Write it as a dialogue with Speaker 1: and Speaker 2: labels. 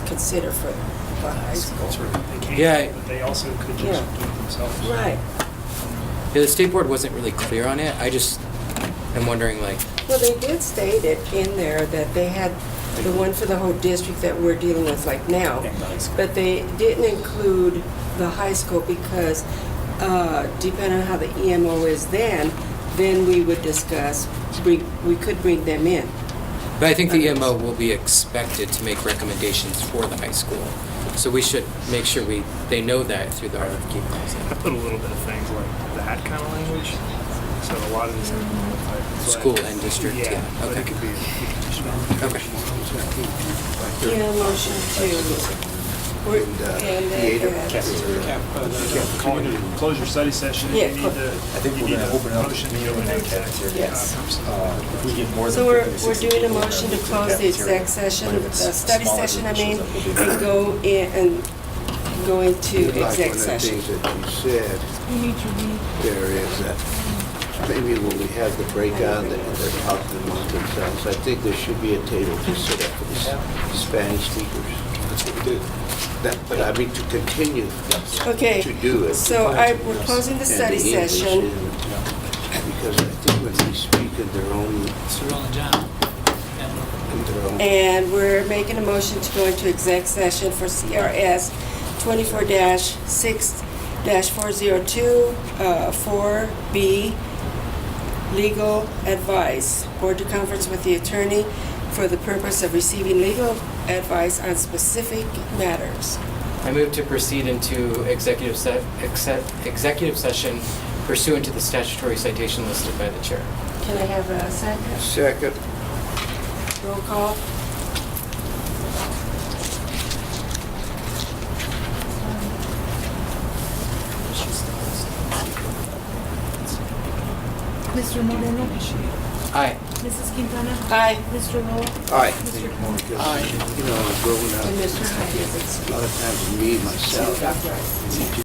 Speaker 1: consider for, for high school.
Speaker 2: That's where they came
Speaker 3: Yeah.
Speaker 2: from, but they also could just
Speaker 1: Yeah.
Speaker 2: do it themselves.
Speaker 1: Right.
Speaker 3: Yeah, the state board wasn't really clear on it. I just am wondering, like,
Speaker 1: Well, they did state it in there that they had the one for the whole district that we're dealing with like now.
Speaker 2: And the high school.
Speaker 1: But they didn't include the high school because uh, depending on how the EMO is then, then we would discuss, we, we could bring them in.
Speaker 3: but I think the EMO will be expected to make recommendations for the high school. So we should make sure we, they know that through the RFQ
Speaker 2: I
Speaker 3: process.
Speaker 2: put a little bit of things like that kind of language. So a lot of this. is-
Speaker 3: School and district, yeah,
Speaker 2: But
Speaker 3: okay.
Speaker 2: it could be.
Speaker 3: Okay.
Speaker 1: Yeah, motion to, we're- and then, uh,
Speaker 2: Call it a closure study session.
Speaker 1: Yeah,
Speaker 2: You need
Speaker 1: clo-
Speaker 2: to.
Speaker 4: I think
Speaker 2: you
Speaker 4: we're
Speaker 2: need
Speaker 4: gonna
Speaker 2: a
Speaker 4: open up
Speaker 2: Motion
Speaker 4: the
Speaker 2: to open
Speaker 4: meeting
Speaker 2: up
Speaker 4: cafeteria.
Speaker 1: Yes.
Speaker 4: Uh, If we get more than
Speaker 1: So we're,
Speaker 4: 50 to
Speaker 1: we're
Speaker 4: 60
Speaker 1: doing a
Speaker 4: people,
Speaker 1: motion to
Speaker 4: then we
Speaker 1: close the
Speaker 4: cafeteria.
Speaker 1: exec session,
Speaker 4: But if it's
Speaker 1: uh, study
Speaker 4: smaller
Speaker 1: session, I mean,
Speaker 4: groups, then we'll be-
Speaker 1: and go in, and go into
Speaker 5: Like
Speaker 1: exec session.
Speaker 5: One of the things that you said, there is that maybe when we have the breakout, that they're talking among themselves, I think there should be a table to sit at for the Spanish speakers.
Speaker 4: That's what we did.
Speaker 5: That, but I mean, to continue
Speaker 1: Okay,
Speaker 5: to do it.
Speaker 1: so I, we're closing the
Speaker 5: and
Speaker 1: study
Speaker 5: English
Speaker 1: session.
Speaker 5: and- Because I think when they speak in their own,
Speaker 6: Cyril and John.
Speaker 5: in their own.
Speaker 1: And we're making a motion to go into exec session for CRS twenty-four six four zero two, uh, four B, legal advice. Board to conference with the attorney for the purpose of receiving legal advice on specific matters.
Speaker 3: I move to proceed into executive se- exec- executive session pursuant to the statutory citation listed by the chair.
Speaker 1: Can I have a second?
Speaker 5: Second,
Speaker 1: Roll call?
Speaker 7: Mr. Moreno,
Speaker 3: Aye.
Speaker 7: Mrs. Quintana,
Speaker 1: Aye.
Speaker 7: Mr. Roll,
Speaker 5: aye.
Speaker 7: Mr.
Speaker 5: You know, I'm grown up,
Speaker 1: And Mr. Hawkins,
Speaker 5: a lot of times me, myself,
Speaker 1: Dr. Rice.